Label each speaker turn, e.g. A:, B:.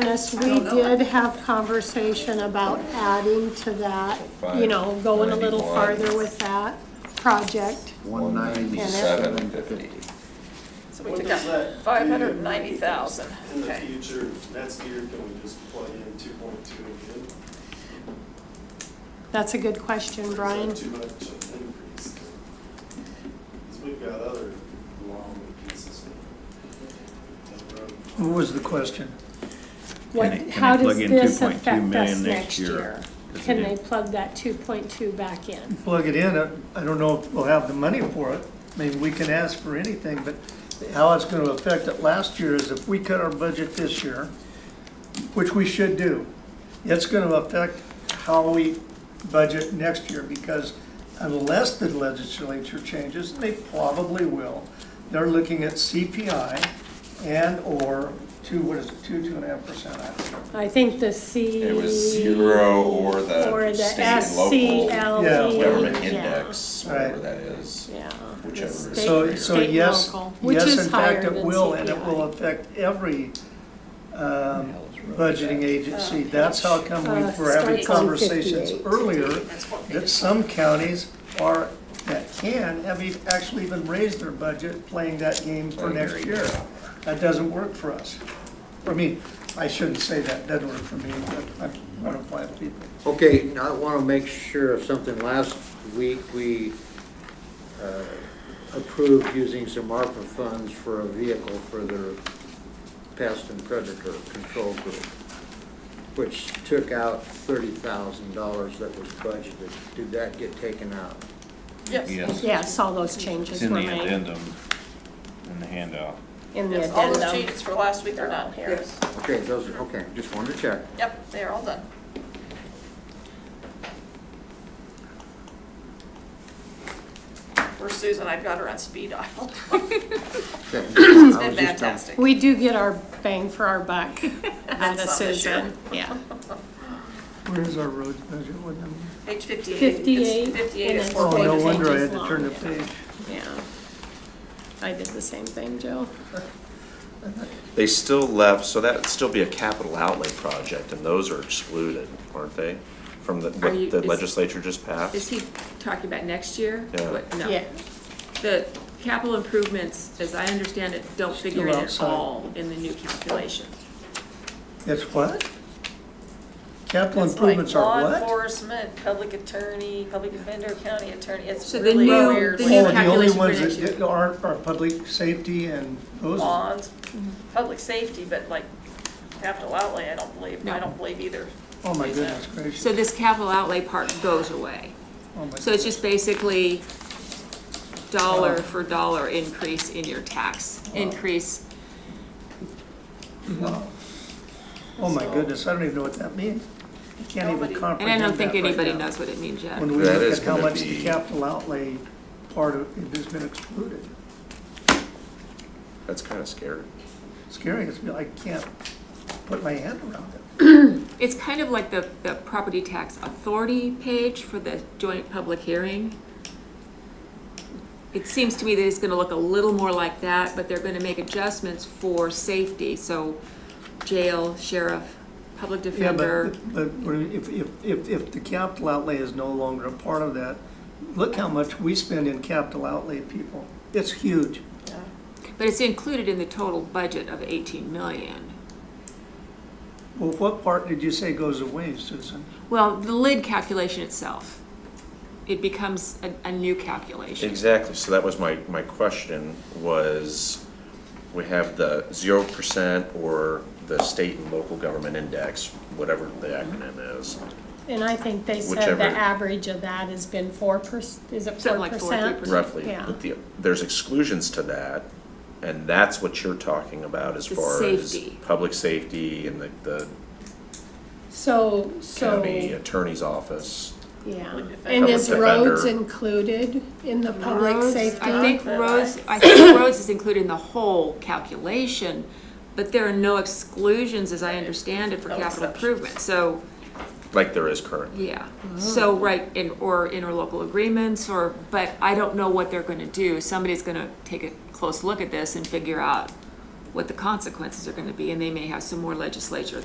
A: fairness, we did have conversation about adding to that, you know, going a little farther with that project.
B: One ninety-seven
A: 197.50.
B: fifty.
C: So we
D: What
C: took
D: does
C: out
D: that? do
C: five hundred and ninety thousand,
D: In the
C: okay.
D: future, next year, can we just plug in two point two again? Is
A: That's a good question,
D: that
A: Brian.
D: Too much of an increase? Because we've got other long pieces. down the road.
E: What was the question?
A: What,
F: Can they- can
A: how
F: they
A: does
F: plug in
A: this
F: 2.2
A: affect us
F: million next
A: next
F: year?
A: year?
F: Does
A: Can
F: it-
A: they plug that two point two back in?
E: Plug it in, I I don't know if we'll have the money for it. I mean, we can ask for anything, but how it's gonna affect it last year is if we cut our budget this year, which we should do, it's gonna affect how we budget next year, because unless the legislature changes, and they probably will, they're looking at CPI and/or two, what is it, two, two and a half percent, I don't know.
A: I think the C.
B: It was zero or
A: Or
B: the
A: the
B: state and local
G: E
A: SCLE.
E: Yeah.
B: government
A: yeah.
B: index, whatever
E: Right.
B: that is.
A: Yeah.
B: Whichever is
A: State-
E: So,
B: greater.
E: so
A: state and
E: yes,
A: local, which
E: yes,
A: is
E: in
A: higher
E: fact, it
A: than
E: will, and it
A: CPI.
E: will affect every um,
F: Hell's road.
E: budgeting agency. That's how come we
A: Uh,
E: were having
A: starts on
E: conversations
A: 58.
E: earlier,
C: That's what they
E: that
C: did.
E: some counties are, that can, have e- actually even raised their budget playing that game for
B: Playing
E: next
B: their
E: year.
B: game.
E: That doesn't work for us. I mean, I shouldn't say that, doesn't work for me, but I'm one of five people.
H: Okay, now I want to make sure of something. Last week, we uh, approved using some ARPA funds for a vehicle for their pest and predator control group, which took out thirty thousand dollars that was budgeted. Did that get taken out?
C: Yes,
F: Yes,
A: Yes, all those
F: it's
A: changes
F: in
A: were
F: the
A: made.
F: addendum, in the handout.
A: In the
C: yes, all
G: um,
C: those
A: addendum.
C: changes for last week are done here.
H: Okay, those, okay, just wanted to check.
C: Yep, they are all done. Where's Susan? I've got her on speed dial.
H: Okay,
C: It's
H: I
C: been
H: was just dumb-
C: fantastic.
A: We do get our bang for our buck out of
C: That's not this year.
A: Susan, yeah.
E: Where's our roads budget? What number?
C: Page fifty-eight. It's
A: 58,
C: Fifty-eight
A: and
C: is
A: it's
C: four
E: Oh, no
C: pages.
E: wonder I
A: pages
E: had to turn the
A: long.
E: page.
A: Yeah. I did the same thing, Joe.
I: They still left, so that'd still be a capital outlay project, and those are excluded, aren't they? From the,
G: Are you-
I: what the
G: is-
I: legislature just passed?
G: Is he talking about next year?
I: Yeah.
G: What- No. The capital improvements, as I understand it, don't figure in at
E: outside.
G: all in the new calculation.
E: It's what? Capital
C: It's like
E: improvements
C: law
E: are what?
C: Enforcement, public attorney, public defender, county attorney, it's
G: So the
C: really
G: new-
C: weird.
G: the
E: Oh,
G: new
C: language.
E: the only
G: calculation for
E: ones
G: next year.
E: that aren't are public safety and those.
C: Bonds, public safety, but like capital outlay, I don't believe, I
G: No.
C: don't believe either.
E: Oh my goodness gracious.
G: So this capital outlay part goes away.
E: Oh, my
G: So it's just basically dollar for dollar increase in your tax increase.
E: Oh my goodness, I don't even know what that means. I can't
C: Nobody- and I
E: even
G: And I
E: comprehend
G: don't think
E: that right
G: anybody
E: now.
G: knows what it means yet.
E: When we
I: That
E: look
I: is
E: at how
I: gonna
E: much the
I: be-
E: capital outlay part of it has been excluded.
I: That's kind of scary.
E: Scary, it's, I can't put my hand around it.
G: It's kind of like the, the property tax authority page for the joint public hearing. It seems to me that it's gonna look a little more like that, but they're gonna make adjustments for safety, so jail, sheriff, public
E: Yeah,
G: defender.
E: but, but we're- if, if, if, if the capital outlay is no longer a part of that, look how much we spend in capital outlay, people. It's huge.
G: But it's included in the total budget of eighteen million.
E: Well, what part did you say goes away, Susan?
G: Well, the lid calculation itself, it becomes a, a new calculation.
I: Exactly, so that was my, my question, was we have the zero percent or the state and local government index, whatever the acronym is.
A: And I think they said
I: Whichever.
A: the average of that has been four percent, is it
G: Something
A: four
G: like four,
A: percent?
G: 3%.
I: roughly.
A: Yeah.
I: But the, there's exclusions to that, and that's what you're talking about as
G: The
I: far as
G: safety.
I: public safety and the, the
A: So, so,
I: county
A: yeah.
I: attorney's office.
A: And is
I: Public defender.
A: roads included in the public
G: Roads,
A: safety?
G: I think roads, I think roads is included in the whole calculation, but there are no exclusions, as I understand it, for
C: No
G: capital
C: exceptions.
G: improvement, so,
I: Like there is currently.
G: yeah. So, right, in, or interlocal agreements, or, but I don't know what they're gonna do. Somebody's gonna take a close look at this and figure out what the consequences are gonna be, and they may have some more legislature